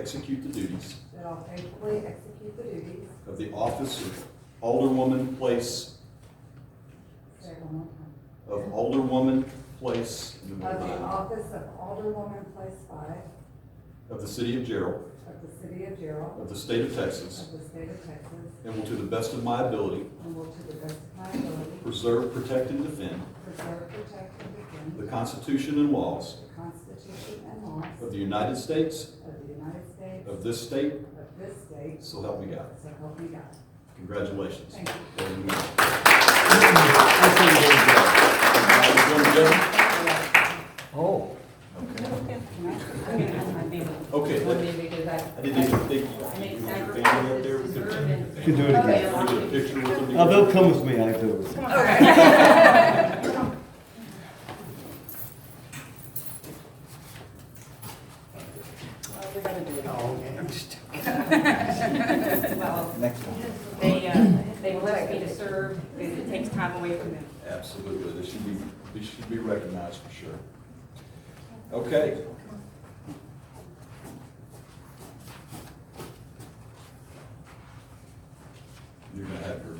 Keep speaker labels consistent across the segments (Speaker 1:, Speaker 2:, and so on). Speaker 1: execute the duties
Speaker 2: that I'll faithfully execute the duties.
Speaker 1: of the office of Alderwoman Place,
Speaker 2: Say it one more time.
Speaker 1: of Alderwoman Place number
Speaker 2: Of the
Speaker 1: nine
Speaker 2: office of Alderwoman, place five,
Speaker 1: of the city of Gerald,
Speaker 2: of the city of Gerald,
Speaker 1: of the state of Texas,
Speaker 2: of the state of Texas,
Speaker 1: and will to the best of my ability
Speaker 2: and will to the best of my ability
Speaker 1: preserve, protect, and defend
Speaker 2: preserve, protect, and defend
Speaker 1: the Constitution and laws
Speaker 2: the Constitution and laws
Speaker 1: of the United States,
Speaker 2: of the United States,
Speaker 1: of this state,
Speaker 2: of this state,
Speaker 1: so help me God.
Speaker 2: so help me God.
Speaker 1: Congratulations.
Speaker 2: Thank you.
Speaker 1: There you go. Congratulations, Jeff.
Speaker 3: Oh.
Speaker 4: I mean, that's my favorite.
Speaker 1: Okay,
Speaker 4: One
Speaker 1: that-
Speaker 4: day because I.
Speaker 1: I didn't even think you want your family up there. We could
Speaker 3: You can do it again.
Speaker 1: we could get a picture with them.
Speaker 3: Uh, they'll
Speaker 1: together.
Speaker 3: come with me, I do. it.
Speaker 4: We're gonna do it.
Speaker 3: Next one.
Speaker 4: They, uh, they elect me to serve, because it takes time away from them.
Speaker 1: Absolutely, they should be, they should be recognized for sure. Okay. You're gonna have your,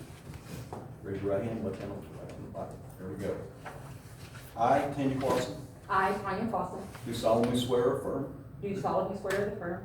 Speaker 1: raise your right hand, left hand on the right on the Bible. There we go. I, Tanya Clarkson,
Speaker 4: I, Tanya Fossil,
Speaker 1: do solemnly swear or affirm
Speaker 4: do solemnly swear to the firm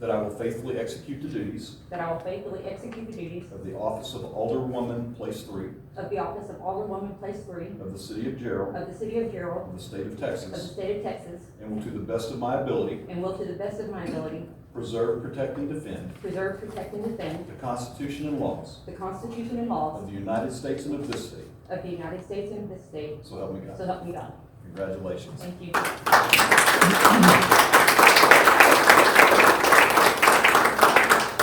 Speaker 1: that I will faithfully execute the duties
Speaker 4: that I will faithfully execute the duties
Speaker 1: of the office of Alderwoman, place three,
Speaker 4: of the office of Alderwoman, place three,
Speaker 1: of the city of Gerald,
Speaker 4: of the city of Gerald,
Speaker 1: of the state of
Speaker 4: of the
Speaker 1: Texas,
Speaker 4: state of Texas,
Speaker 1: and will to the best of my ability
Speaker 4: and will to the best of my ability
Speaker 1: preserve, protect, and defend
Speaker 4: preserve, protect, and defend
Speaker 1: the Constitution and laws
Speaker 4: the Constitution and laws
Speaker 1: of the United States and of this state,
Speaker 4: of the United States and this state,
Speaker 1: so help me God.
Speaker 4: so help me God.
Speaker 1: Congratulations.
Speaker 4: Thank you.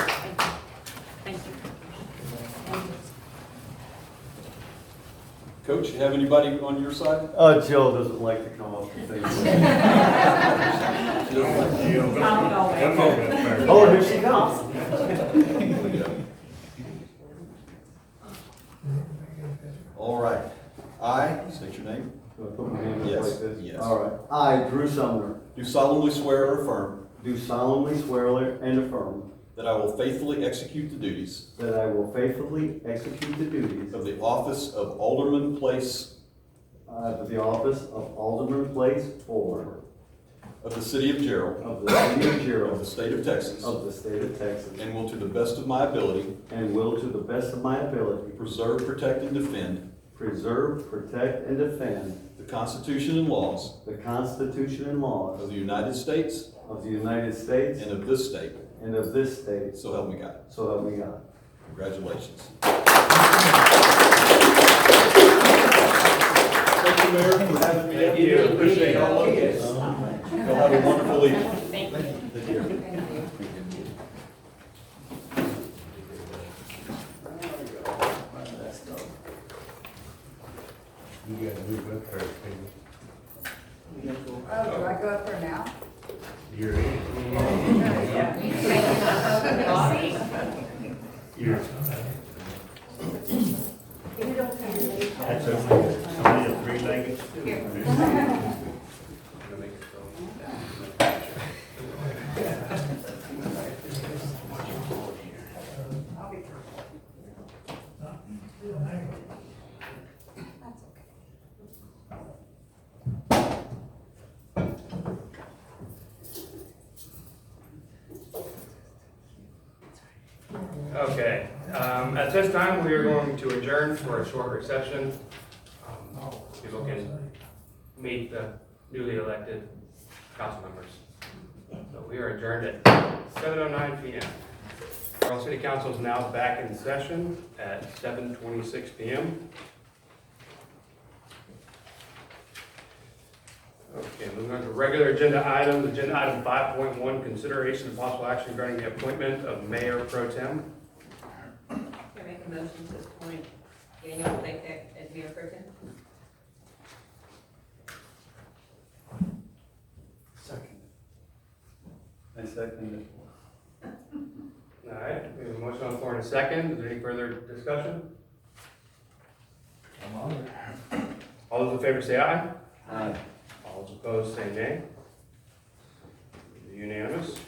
Speaker 4: Thank you. Thank you.
Speaker 1: Coach, you have anybody on your side?
Speaker 3: Uh, Jill doesn't like to come up to things.
Speaker 1: Jill?
Speaker 4: Not always.
Speaker 3: Oh, here she comes.
Speaker 1: All right. I, state your name,
Speaker 3: Do I put my hand up
Speaker 1: Yes,
Speaker 3: like this?
Speaker 1: yes.
Speaker 3: All right. I, Drew Sumner,
Speaker 1: do solemnly swear or affirm
Speaker 3: do solemnly swear and affirm
Speaker 1: that I will faithfully execute the duties
Speaker 3: that I will faithfully execute the duties
Speaker 1: of the office of Alderman Place
Speaker 3: of the office of Alderman Place Four
Speaker 1: of the city of Gerald,
Speaker 3: of the city of
Speaker 1: of the
Speaker 3: Gerald
Speaker 1: state of Texas,
Speaker 3: of the state of Texas
Speaker 1: and will to the best of my ability
Speaker 3: and will to the best of my ability
Speaker 1: preserve, protect, and defend
Speaker 3: preserve, protect, and defend
Speaker 1: the Constitution and laws
Speaker 3: the Constitution and
Speaker 1: of
Speaker 3: laws
Speaker 1: the United States
Speaker 3: of the United States
Speaker 1: and of this state,
Speaker 3: and of this state,
Speaker 1: so help me God.
Speaker 3: so help me God.
Speaker 1: Congratulations.
Speaker 5: Thank you, Mayor, for having me. Thank you, appreciate all of you.
Speaker 1: Y'all have a wonderful evening.
Speaker 4: Thank you.
Speaker 1: Take care.
Speaker 6: You gotta move up first, baby.
Speaker 2: Oh, do I go up there now?
Speaker 6: You're in. You're. That's okay. Only a three-legged stool.
Speaker 2: I'll be careful. That's okay.
Speaker 5: Okay, um, at this time, we are going to adjourn for a short recession. Um, People can meet the newly elected council members. So we are adjourned at seven oh nine P M. Carl City Council is now back in session at seven twenty-six P M. Okay, moving on to regular agenda items, agenda item five point one, consideration of possible action regarding the appointment of mayor pro tem.
Speaker 4: Can I make a motion to this point? Daniel, will take that as mayor pro tem?
Speaker 3: I second
Speaker 5: All right, we have a motion on the floor in a second. Is there any further discussion? All those in favor say aye.
Speaker 3: Aye.
Speaker 5: All those opposed say nay. Unanimous.